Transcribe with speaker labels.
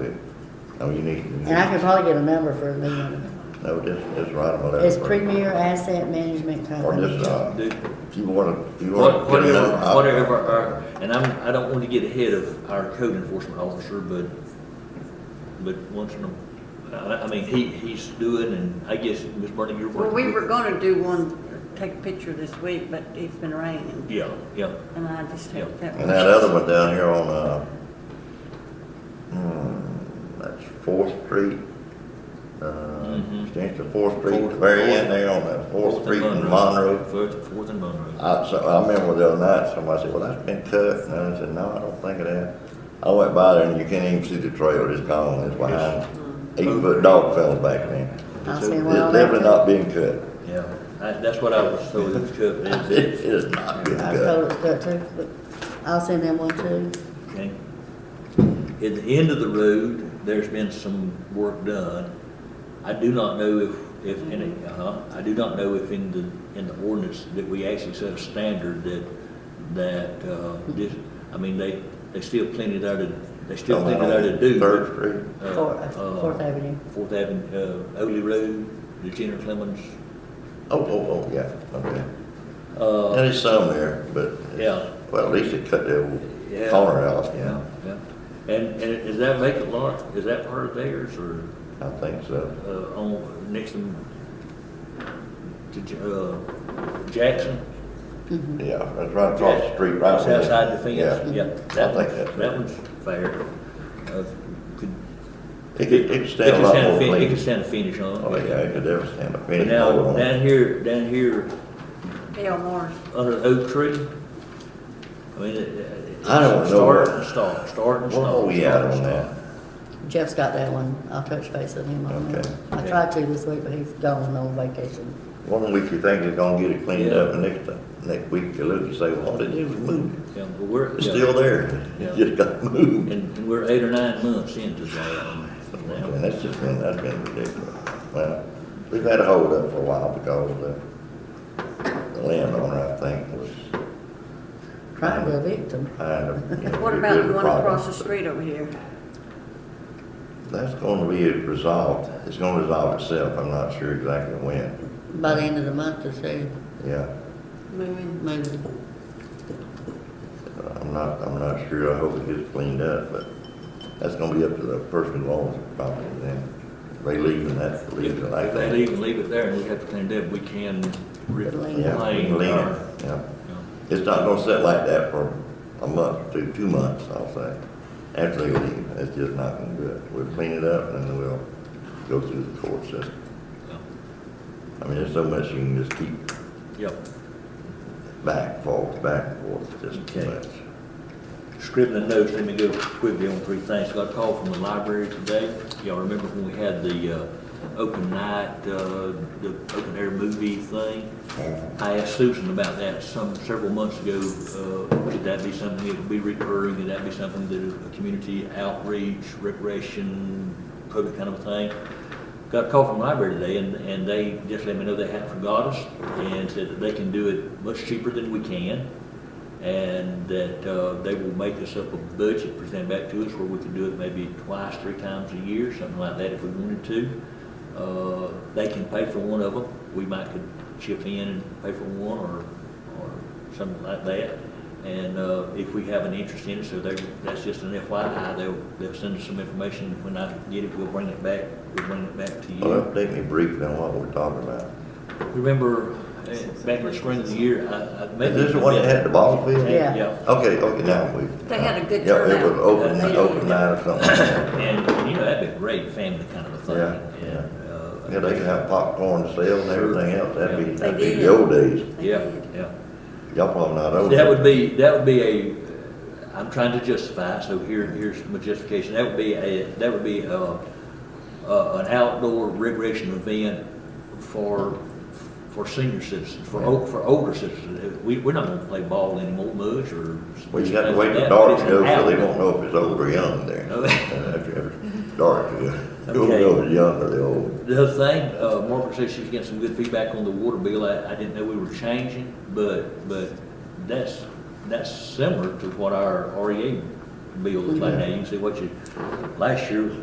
Speaker 1: It- No, you need, you
Speaker 2: And I
Speaker 1: need-
Speaker 2: could probably get a number for a million.
Speaker 1: no, this, this right about that.
Speaker 2: It's Premier Asset Management
Speaker 1: Or
Speaker 2: Company.
Speaker 1: just, uh, if you wanna, if you wanna.
Speaker 3: What-
Speaker 1: get
Speaker 3: Whatever,
Speaker 1: another op-
Speaker 3: whatever, our- and I'm, I don't want to get ahead of our code enforcement officer, but, but once in a, I, I mean, he, he's doing, and I guess, Ms. Burning, you're
Speaker 4: Well,
Speaker 3: working.
Speaker 4: we
Speaker 3: with-
Speaker 4: were gonna do one, take a picture this week, but it's been raining,
Speaker 3: Yeah, yeah,
Speaker 4: and I just haven't felt.
Speaker 1: And that other one down here on, uh, hmm, that's Fourth Street, uh,
Speaker 3: Mhm.
Speaker 1: extension of Fourth Street, the
Speaker 3: Fourth-
Speaker 1: very
Speaker 3: Fourth-
Speaker 1: end there on that Fourth
Speaker 3: and
Speaker 1: Street in
Speaker 3: Monroe.
Speaker 1: Monroe.
Speaker 3: Fourth, Fourth and Monroe.
Speaker 1: I, so, I remember the other night, somebody said, well, that's been cut, and I said, no, I don't think it has. I went by there and you can't even see the trail, it's gone, it's behind, eight-foot dog fell back then.
Speaker 2: I
Speaker 1: It's
Speaker 2: see where all
Speaker 1: definitely
Speaker 2: that.
Speaker 1: not being cut.
Speaker 3: Yeah, I, that's what I was told, it was cut,
Speaker 1: It
Speaker 3: that's it,
Speaker 1: is not being
Speaker 2: I was told
Speaker 1: cut.
Speaker 2: it's cut too, but I'll send them one too.
Speaker 3: okay? At the end of the road, there's been some work done. I do not know if, if, in it- uh-huh, I do not know if in the, in the ordinance that we actually set a standard that, that, uh, this, I mean, they, they still plenty there to, they still
Speaker 1: Down
Speaker 3: plenty there to do. but,
Speaker 1: Third Street.
Speaker 3: uh,
Speaker 2: Fourth-
Speaker 3: uh,
Speaker 2: Fourth Avenue.
Speaker 3: Fourth Avenue, uh, Oley Road, the Jenner Clemens,
Speaker 1: Oh, oh, oh, yeah, okay.
Speaker 3: uh,
Speaker 1: And it's some there, but. it's-
Speaker 3: Yeah.
Speaker 1: Well, at least it cut the old
Speaker 3: Yeah.
Speaker 1: corner out, yeah,
Speaker 3: Yeah, yeah. And, and is that vacant lot, is that part of theirs or,
Speaker 1: I think so.
Speaker 3: uh, on, next to, to, J- uh, Jackson?
Speaker 2: Mm-hmm.
Speaker 1: Yeah, that's right across the street, right.
Speaker 3: It's
Speaker 1: where-
Speaker 3: outside the fence, yeah.
Speaker 1: I think
Speaker 3: That
Speaker 1: that's-
Speaker 3: one's, that one's fair. Uh, could-
Speaker 1: It could, it could
Speaker 3: It
Speaker 1: stand a
Speaker 3: could
Speaker 1: lot
Speaker 3: stand a
Speaker 1: more
Speaker 3: fin, it could
Speaker 1: clean.
Speaker 3: stand a finish on it.
Speaker 1: Oh, yeah, it could ever stand a
Speaker 3: But
Speaker 1: finish
Speaker 3: now,
Speaker 1: more on
Speaker 3: down
Speaker 1: it.
Speaker 3: here, down here,
Speaker 4: Bill Morris,
Speaker 3: under the oak tree, I mean, it, it.
Speaker 1: I don't know.
Speaker 3: Start and stop, start and stop.
Speaker 1: Oh, yeah,
Speaker 3: start and
Speaker 1: on
Speaker 3: stop.
Speaker 1: that.
Speaker 2: Jeff's got that one. I'll touch base with him on that.
Speaker 1: Okay.
Speaker 2: I tried to this week, but he's gone on vacation.
Speaker 1: One week you think it's gonna get it cleaned
Speaker 3: Yeah.
Speaker 1: up, and next, time- next week you look and say, well, did it move?
Speaker 3: Yeah, but we're.
Speaker 1: It's
Speaker 3: yeah.
Speaker 1: still there,
Speaker 3: Yeah.
Speaker 1: It just got moved.
Speaker 3: And and we're eight or nine months into that.
Speaker 1: And that's just been, that's been ridiculous. Well, we've had a hold up for a while because the, the landowner, I think, was
Speaker 2: Trying to evict him.
Speaker 1: kind of. you know,
Speaker 4: what
Speaker 1: we
Speaker 4: about
Speaker 1: did
Speaker 4: the one
Speaker 1: problem.
Speaker 4: across the street over here?
Speaker 1: That's gonna be resolved, it's gonna resolve itself, I'm not sure exactly when,
Speaker 2: By the end of the month, they say,
Speaker 1: yeah.
Speaker 4: Moving,
Speaker 2: maybe.
Speaker 1: I'm not, I'm not sure, I hope it gets cleaned up, but that's gonna be up to the person who owns the property then. If They leave and that's, leave it like
Speaker 3: If
Speaker 1: that.
Speaker 3: they leave and leave it there and we have to clean it up, we can
Speaker 2: Lane.
Speaker 1: Yeah, we
Speaker 3: reclaim
Speaker 1: can leave it,
Speaker 3: our.
Speaker 1: yeah.
Speaker 3: you know,
Speaker 1: It's not gonna sit like that for a month, two, two months, I'll say. After they leave, it's just not gonna do it. We'll clean it up and then we'll go through the court system. I mean, there's so much you can just keep
Speaker 3: yeah.
Speaker 1: back, forth, back, forth, just too
Speaker 3: Okay.
Speaker 1: much.
Speaker 3: Scribbling notes, let me go quickly on three things. Got a call from the library today. Y'all remember when we had the uh, open night, uh, the open air movie thing? I asked Susan about that some, several months ago, uh, could that be something that would be recurring, could that be something that a community outreach, recreation, public kind of thing? Got a call from the library today, and, and they just let me know they hadn't forgot us, and said that they can do it much cheaper than we can, and that, uh, they will make us up a budget, present back to us, where we can do it maybe twice, three times a year, something like that if we wanted to. Uh, they can pay for one of them, we might could chip in and pay for one or, or something like that. And, uh, if we have an interest in it, so they, that's just an FYI, they'll, they'll send us some information, when I get it, we'll bring it back, we'll bring it back to
Speaker 1: Well,
Speaker 3: you.
Speaker 1: update me briefly on what we're talking about.
Speaker 3: Remember, eh, back in the spring of the year, I, I.
Speaker 1: Is this the one that had the ball field?
Speaker 2: Yeah.
Speaker 3: Yeah,
Speaker 1: Okay, okay, now we.
Speaker 4: They had a good
Speaker 1: Yeah, it was
Speaker 4: turnout.
Speaker 1: open,
Speaker 4: They-
Speaker 1: open night or something like that.
Speaker 3: and, you know, that'd be a great family kind of a thing.
Speaker 1: Yeah, yeah.
Speaker 3: And, uh,
Speaker 1: Yeah, they can have popcorn to sell and everything else, that'd be,
Speaker 3: They
Speaker 1: that'd be
Speaker 4: did.
Speaker 1: the old days.
Speaker 4: they
Speaker 3: Yeah,
Speaker 4: did.
Speaker 3: yeah.
Speaker 1: Y'all probably not old.
Speaker 3: That would be, that would be a, I'm trying to justify, so here, here's my justification, that would be a, that would be a, a- an outdoor recreation event for, for senior citizens, for, o- for older citizens. We, we're not gonna play ball anymore much, or.
Speaker 1: Well, you have to wait till
Speaker 3: That,
Speaker 1: dark
Speaker 3: but
Speaker 1: to
Speaker 3: it's
Speaker 1: go, so
Speaker 3: an
Speaker 1: they
Speaker 3: outdoor.
Speaker 1: won't know if it's old or young there.
Speaker 3: Oh.
Speaker 1: Uh, After it's dark, you don't
Speaker 3: Okay.
Speaker 1: know if it's young or the old.
Speaker 3: The other thing, uh, Margaret said she was getting some good feedback on the water bill. I, I didn't know we were E changing, but, but that's, that's similar to what our REA bills like that, you can see what you, last year,